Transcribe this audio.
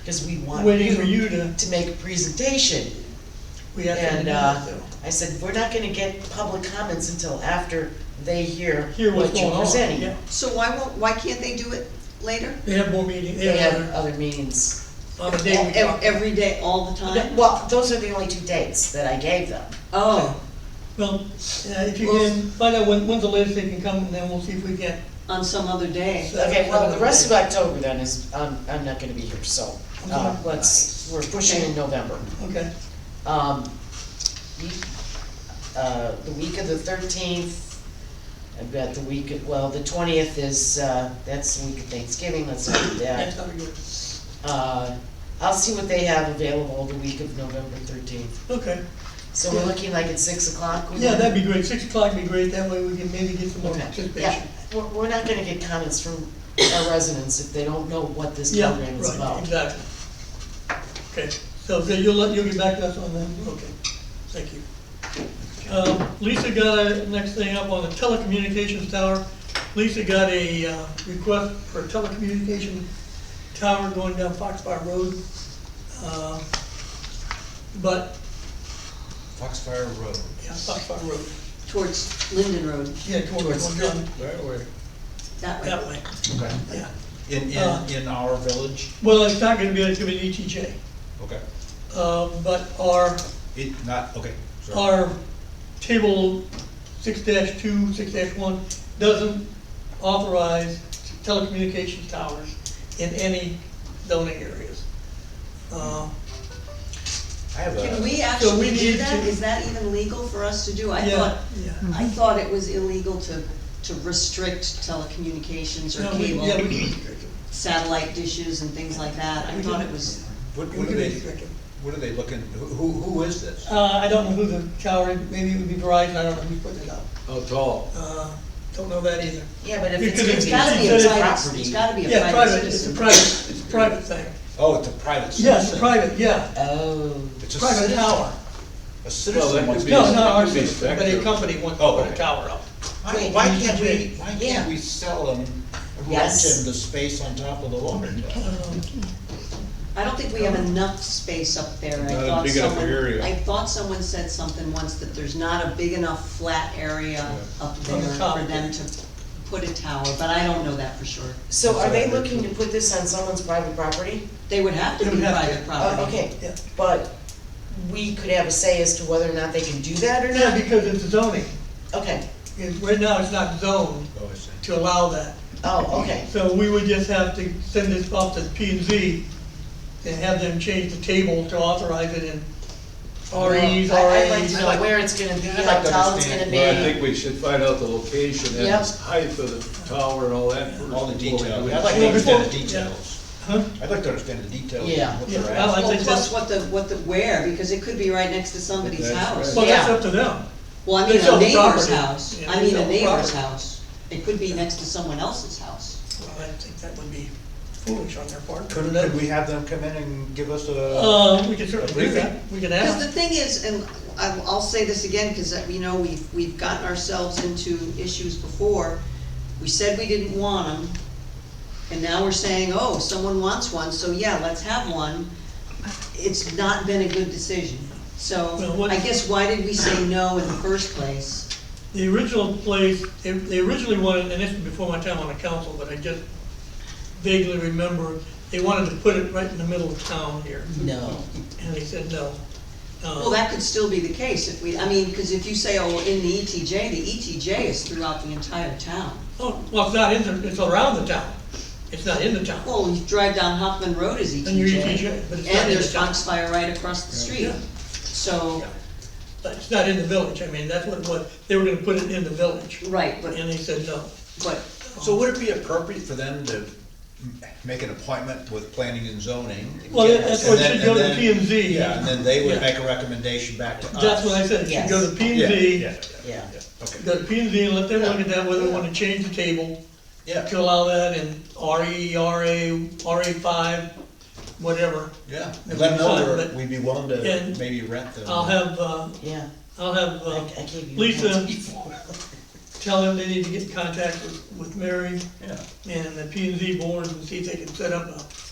because we want Waiting for you to, to make a presentation. we have to. And, do uh, that, though. I said, we're not gonna get public comments until after they hear Hear what's what going you're on, presenting. yeah. So why won't, why can't they do it later? They have more meeting, they They have have other meetings. on the day we E-, Ev- talk. Every day, all the Uh, time? Well, those are the only two dates that I gave them. Oh, Well, yeah, if you can, find out when, when's the latest they can come, and then we'll see if we get. on some other day. Okay, well, the rest of October then is, um, I'm not gonna be here, so, uh, Okay. let's, we're pushing in November. Okay, Um, you- uh, the week of the thirteenth, I've got the week, of- well, the twentieth is, uh, that's the week of Thanksgiving, let's not do that's that. how we do it. Uh, I'll see what they have available the week of November thirteenth. Okay, So we're looking like at six o'clock? yeah, that'd be great, six o'clock would be great, that way we can maybe get some more Okay, yeah, participation. we're, we're not gonna get comments from our residents if they don't know what this Yeah, program is right, about. exactly. Okay, so so you'll, let- you'll get back to us on that, okay, thank you. Um, Lisa got a, next thing up on the telecommunications tower, Lisa got a uh, request for a telecommunication tower going down Foxfire Road. Um, But, Foxfire Road. yeah, Foxfire Road, Towards Linden Road, yeah, towards, Towards- down Where, where? that way. that way, Okay. yeah. In, Uh, in, in our village? Well, it's not gonna be, it's gonna be an E ETJ, Okay. uh, but our It, not, okay, sorry. our table six two, six one, doesn't authorize telecommunications towers in any zoning areas. Uh, I have Can we a, So we actually need do that? to- Is that even legal for us to do? I Yeah, thought, yeah. I thought it was illegal to, to restrict telecommunications or No, we- yeah, we cable, can restrict them. satellite dishes and things like that. I We thought can- it was, what, We what are can they, restrict them. what are they looking, who, who who is this? Uh, I don't know who the tower, is. maybe it would be Verizon, I don't know who's putting it up. Oh, tall. Uh, don't know that either. Yeah, but if Because it's it's it's gonna gotta be be a It's a a private, property. it's gotta be a Yeah, private, it's a citizen. private, it's a private thing. Oh, it's a private citizen. Yes, private, yeah, Oh. It's a private citizen. tower. A Well, that citizen could wants to. be- No, not our Could be system, but a effective. company wants to Oh, put a okay. tower up. Why, why can't we, why Yeah. can't we sell them, rent Yes. them the space on top of the water tower? Um, I don't think we have enough space up there. I Not a thought big enough someone- area. I thought someone said something once that there's not a big enough flat area On up there the top. for them to put a tower, but I don't know that for sure. So are they looking to put this on someone's private property? They would have to They would be have to. private property. Oh, okay, Yeah. but we could have a say as to whether or not they can do that or Yeah, not? because it's zoning, Okay, It's- right now it's not zoned Oh, I see. to allow that. oh, okay, So we would just have to send this off to P and Z and have them change the table to authorize it in REs, Well, I- I'd like to RAs. know where it's gonna be, I'd like like to how it's understand. gonna be. Well, I think we should find out the location and Yep. height of the tower and all that. first All the before we do details, it. I'd like to Well, understand the before- details. Huh? I'd like to understand the details Yeah. of what they're Yeah, I like- asking. Well, think plus that's- what the, what the, where, because it could be right next to somebody's That's house. right. Well, that's Yeah. up to them. Well, I mean They a sell the neighbor's property. house, Yeah, I they mean sell a the neighbor's property. house. It could be next to someone else's house. Well, I think that would be foolish on their part. Couldn't, could we have them come in and give us a, Uh, we could certainly do that, we could Because the ask. thing is, and I'll, I'll say this again, because, you know, we've, we've gotten ourselves into issues before. We said we didn't want them, and now we're saying, oh, someone wants one, so yeah, let's have one. It's not been a good decision. Well, So what- I guess why did we say no in the first place? The original place, they- they originally wanted, and this is before my time on the council, but I just vaguely remember, they wanted to put it right in the middle of town here. No, And they said no. Uh, Well, that could still be the case if we, I mean, because if you say, oh, in the ETJ, the ETJ is throughout the entire town. Oh, well, it's not in, the- it's around the town. It's not in the town. Well, you drive down Hoffman Road is ETJ. And you're ETJ, but it's not in And the there's town. Foxfire right across the street. Yeah. So, But it's not in the village. I mean, that's what, what, they were gonna put it in the village. right, but, And they said no. but, so would it be appropriate for them to m- make an appointment with planning and zoning? Well, that- that's And what then- should go and to then- P and Z. Yeah, and then they would Yeah. make a recommendation back to us. That's what I said. It should go to P and Z, Yeah, yeah, okay, go to P and Z and let them look at that, whether they wanna change the table yeah, to allow that in E, RE, RA, RA five, whatever. yeah, and let them know But- we're- we'd be willing to and maybe rent them. I'll have, uh, yeah, I'll have, I uh, I gave you. Lisa before. tell them they need to get in contact with, with Mary Yeah, and the P and Z board and see if they can set up a